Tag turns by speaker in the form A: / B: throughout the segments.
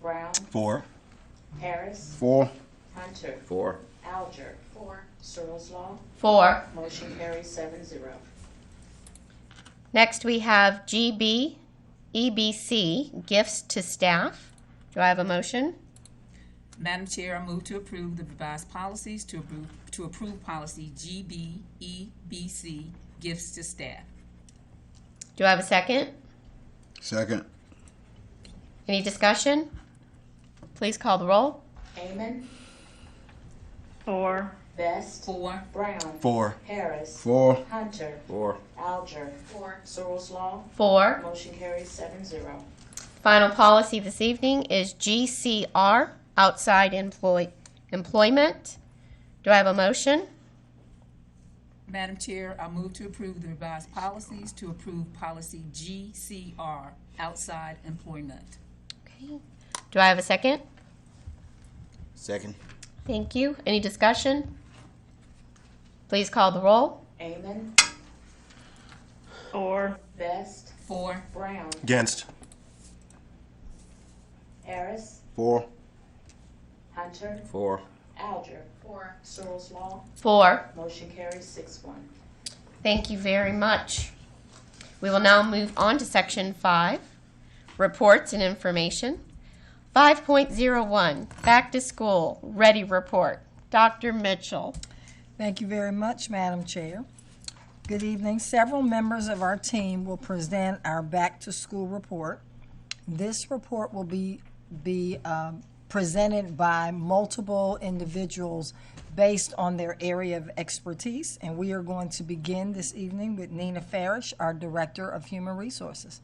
A: Brown,
B: Four.
A: Harris,
C: Four.
A: Hunter,
D: Four.
A: Alger. Four. Searl's Law,
E: Four.
A: motion carries seven zero.
E: Next, we have GB, EBC, gifts to staff. Do I have a motion?
F: Madam Chair, I move to approve the revised policies to approve, to approve policy GBEBC, gifts to staff.
E: Do I have a second?
C: Second.
E: Any discussion? Please call the roll.
A: Amon,
G: four,
A: Best,
F: Four.
A: Brown,
B: Four.
A: Harris,
C: Four.
A: Hunter,
D: Four.
A: Alger. Four. Searl's Law,
E: Four.
A: motion carries seven zero.
E: Final policy this evening is GCR, outside employ, employment. Do I have a motion?
F: Madam Chair, I move to approve the revised policies to approve policy GCR, outside employment.
E: Okay. Do I have a second?
D: Second.
E: Thank you. Any discussion? Please call the roll.
A: Amon,
G: four,
A: Best,
F: Four.
A: Brown,
B: Against.
A: Harris,
C: Four.
A: Hunter,
D: Four.
A: Alger. Four. Searl's Law,
E: Four.
A: motion carries six one.
E: Thank you very much. We will now move on to section five, reports and information. Five point zero one, back to school, ready report. Dr. Mitchell.
H: Thank you very much, Madam Chair. Good evening. Several members of our team will present our back-to-school report. This report will be, be um, presented by multiple individuals based on their area of expertise, and we are going to begin this evening with Nina Farish, our Director of Human Resources.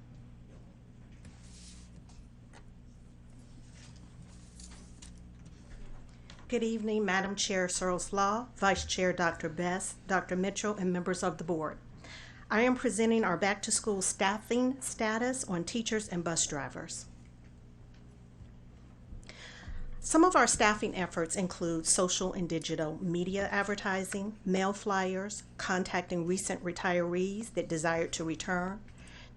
I: Good evening, Madam Chair Searles Law, Vice Chair Dr. Best, Dr. Mitchell, and members of the board. I am presenting our back-to-school staffing status on teachers and bus drivers. Some of our staffing efforts include social and digital media advertising, mail flyers, contacting recent retirees that desire to return,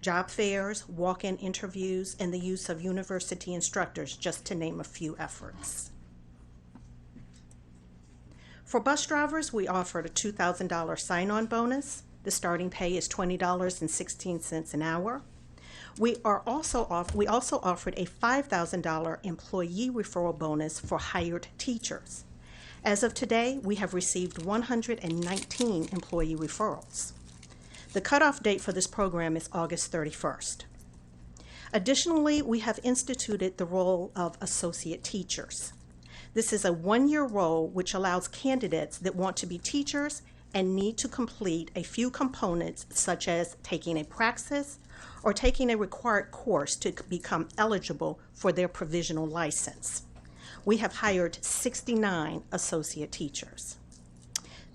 I: job fairs, walk-in interviews, and the use of university instructors, just to name a few efforts. For bus drivers, we offered a $2,000 sign on bonus. The starting pay is $20.16 an hour. We, are also off, we also offered a $5,000 employee referral bonus for hired teachers. As of today, we have received 119 employee referrals. The cutoff date for this program is August 31st. Additionally, we have instituted the role of associate teachers. This is a one year role which allows candidates that want to be teachers and need to complete a few components, such as taking a praxis or taking a required course to c- become eligible for their provisional license. We have hired 69 associate teachers.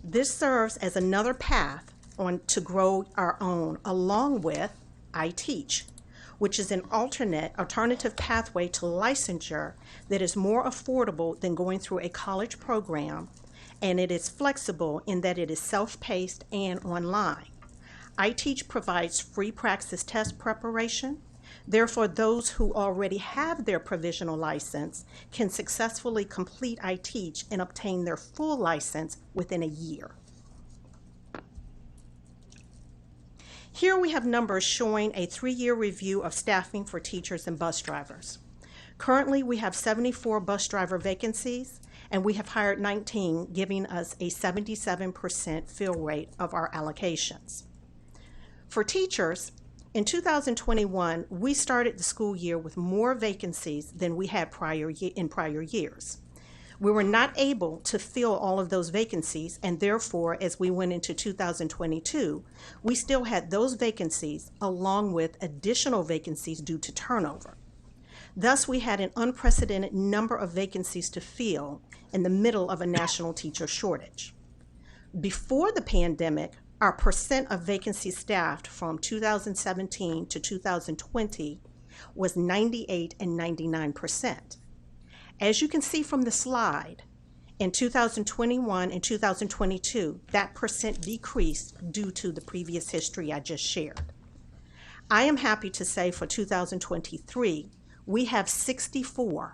I: This serves as another path on to grow our own along with I Teach, which is an alternate alternative pathway to licensure that is more affordable than going through a college program and it is flexible in that it is self-paced and online. I Teach provides free praxis test preparation. Therefore, those who already have their provisional license can successfully complete I Teach and obtain their full license within a year. Here we have numbers showing a three-year review of staffing for teachers and bus drivers. Currently, we have 74 bus driver vacancies, and we have hired 19, giving us a 77% fill rate of our allocations. For teachers, in 2021, we started the school year with more vacancies than we had prior ye- in prior years. We were not able to fill all of those vacancies, and therefore, as we went into 2022, we still had those vacancies along with additional vacancies due to turnover. Thus, we had an unprecedented number of vacancies to fill in the middle of a national teacher shortage. Before the pandemic, our percent of vacancy staffed from 2017 to 2020 was 98 and 99 percent. As you can see from the slide, in 2021 and 2022, that percent decreased due to the previous history I just shared. I am happy to say for 2023, we have 64